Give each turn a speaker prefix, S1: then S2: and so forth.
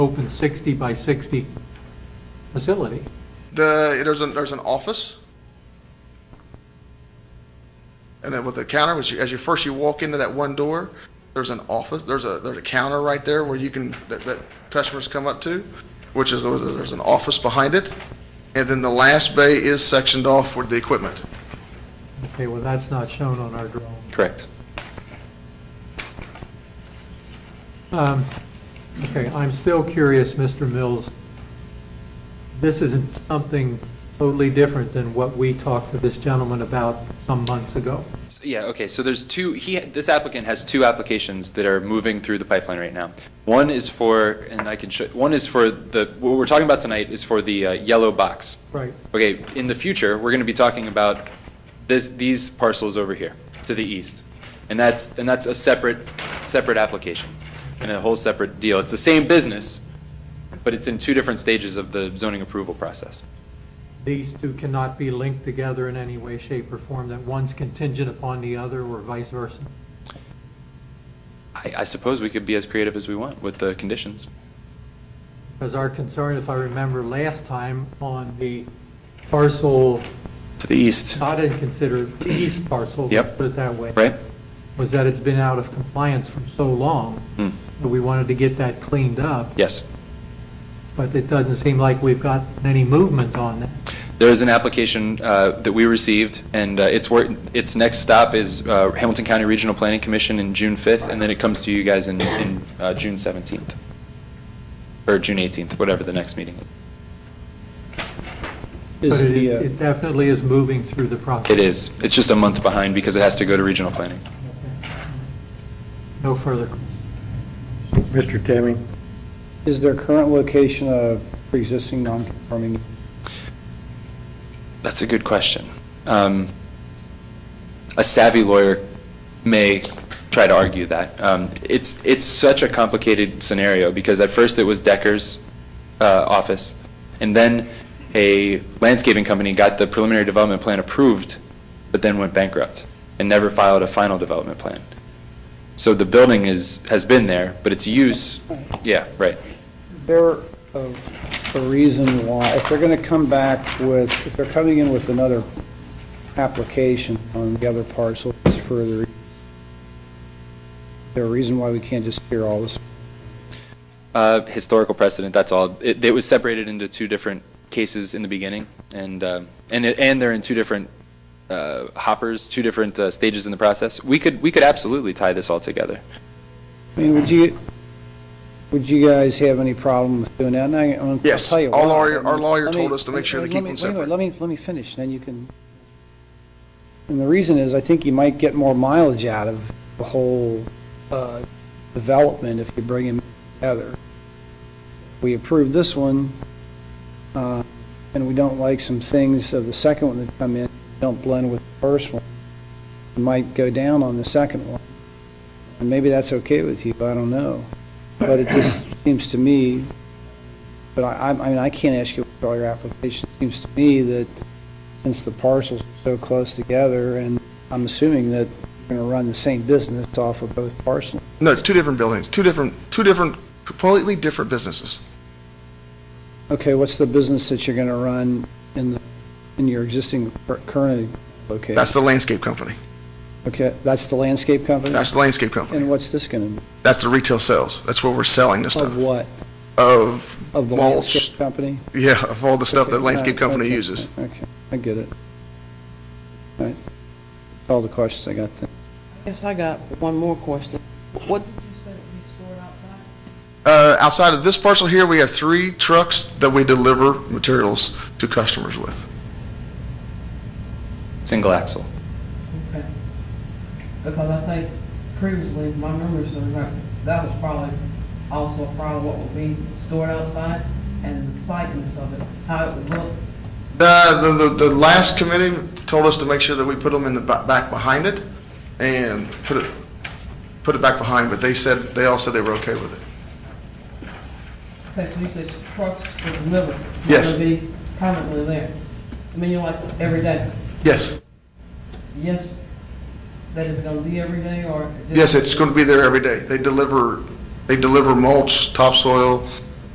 S1: open 60 by 60 facility.
S2: The, there's an, there's an office. And then with the counter, which you, as you first you walk into that one door, there's an office, there's a, there's a counter right there where you can, that, that customers come up to, which is, there's an office behind it. And then the last bay is sectioned off with the equipment.
S1: Okay, well, that's not shown on our drawing.
S3: Correct.
S1: Um, Okay, I'm still curious, Mr. Mills. This isn't something totally different than what we talked to this gentleman about some months ago.
S3: S- Yeah, okay, so there's two, he, this applicant has two applications that are moving through the pipeline right now. One is for, and I can show, one is for the, what we're talking about tonight is for the uh, yellow box.
S1: Right.
S3: Okay, in the future, we're gonna be talking about this, these parcels over here, to the east. And that's, and that's a separate, separate application, and a whole separate deal. It's the same business, but it's in two different stages of the zoning approval process.
S1: These two cannot be linked together in any way, shape, or form, that one's contingent upon the other or vice versa.
S3: I, I suppose we could be as creative as we want with the conditions.
S1: Because our concern, if I remember last time, on the parcel
S3: To the east.
S1: not in consider the east parcel.
S3: Yep.
S1: Put it that way.
S3: Right?
S1: Was that it's been out of compliance for so long,
S3: Hmm.
S1: that we wanted to get that cleaned up.
S3: Yes.
S1: But it doesn't seem like we've got any movement on that.
S3: There is an application uh, that we received, and uh, its wor- its next stop is uh, Hamilton County Regional Planning Commission in June 5th, and then it comes to you guys in in, uh, June 17th, or June 18th, whatever the next meeting is.
S1: But
S4: Is
S1: it
S4: the, uh,
S1: it definitely is moving through the process.
S3: It is. It's just a month behind because it has to go to regional planning.
S1: No further.
S4: Mr. Timmy? Is their current location a pre-existing non-conforming?
S3: That's a good question. Um, A savvy lawyer may try to argue that. Um, It's, it's such a complicated scenario, because at first it was Decker's uh, office, and then a landscaping company got the preliminary development plan approved, but then went bankrupt and never filed a final development plan. So the building is, has been there, but its use, yeah, right.
S4: Is there a a reason why, if they're going to come back with, if they're coming in with another application on the other parcel, it's further, is there a reason why we can't just hear all this?
S3: Uh, historical precedent, that's all. It, it was separated into two different cases in the beginning, and, um, and, it- and they're in two different uh, hoppers, two different uh, stages in the process. We could, we could absolutely tie this all together.
S4: I mean, would you, would you guys have any problem with doing that? And I- I'll
S2: Yes,
S4: tell you
S2: our
S4: why.
S2: lawyer- our lawyer
S4: Let me-
S2: told us to make sure they
S4: let
S2: keep
S4: me-
S2: them
S4: wait a minute,
S2: separate.
S4: Let me, let me finish, then you can, and the reason is, I think you might get more mileage out of the whole uh, development if you bring them together. We approve this one, uh, and we don't like some things of the second one that come in, don't blend with the first one, We might go down on the second one. And maybe that's okay with you, I don't know. But it just seems to me, but I, I I mean, I can't ask you for all your applications. It seems to me that since the parcels are so close together, and I'm assuming that you're going to run the same business off of both parcels.
S2: No, it's two different buildings, two different, two different, completely different businesses.
S4: Okay, what's the business that you're going to run in, the in your existing cur- current location?
S2: That's the landscape company.
S4: Okay, that's the landscape company?
S2: That's the landscape company.
S4: And what's this going to,
S2: That's the retail sales. That's where we're selling this
S4: of
S2: stuff.
S4: what?
S2: Of
S4: Of the
S2: mulch,
S4: landscape company?
S2: Yeah, of all the stuff that
S4: Okay,
S2: landscape
S4: alright,
S2: company
S4: okay,
S2: uses.
S4: Okay, I get it. All right. All the questions I got then.
S5: Yes, I got one more question. What did you say we stored outside?
S2: Uh, outside of this parcel here, we have three trucks that we deliver materials to customers with.
S3: Single axle.
S5: Okay. Because I think previously, if my memory serves right, that was probably also a problem, what would be stored outside and the sightings of it, how it would look.
S2: The, the, the, the last committee told us to make sure that we put them in the ba- back behind it and put it, put it back behind, but they said, they all said they were okay with it.
S5: Okay, so you said trucks would deliver.
S2: Yes.
S5: Would be permanently there. I mean, you're like, every day.
S2: Yes,
S5: Yes, that is gonna be every day or?
S2: yes, it's going to be there every day. They deliver, they deliver mulch, topsoil,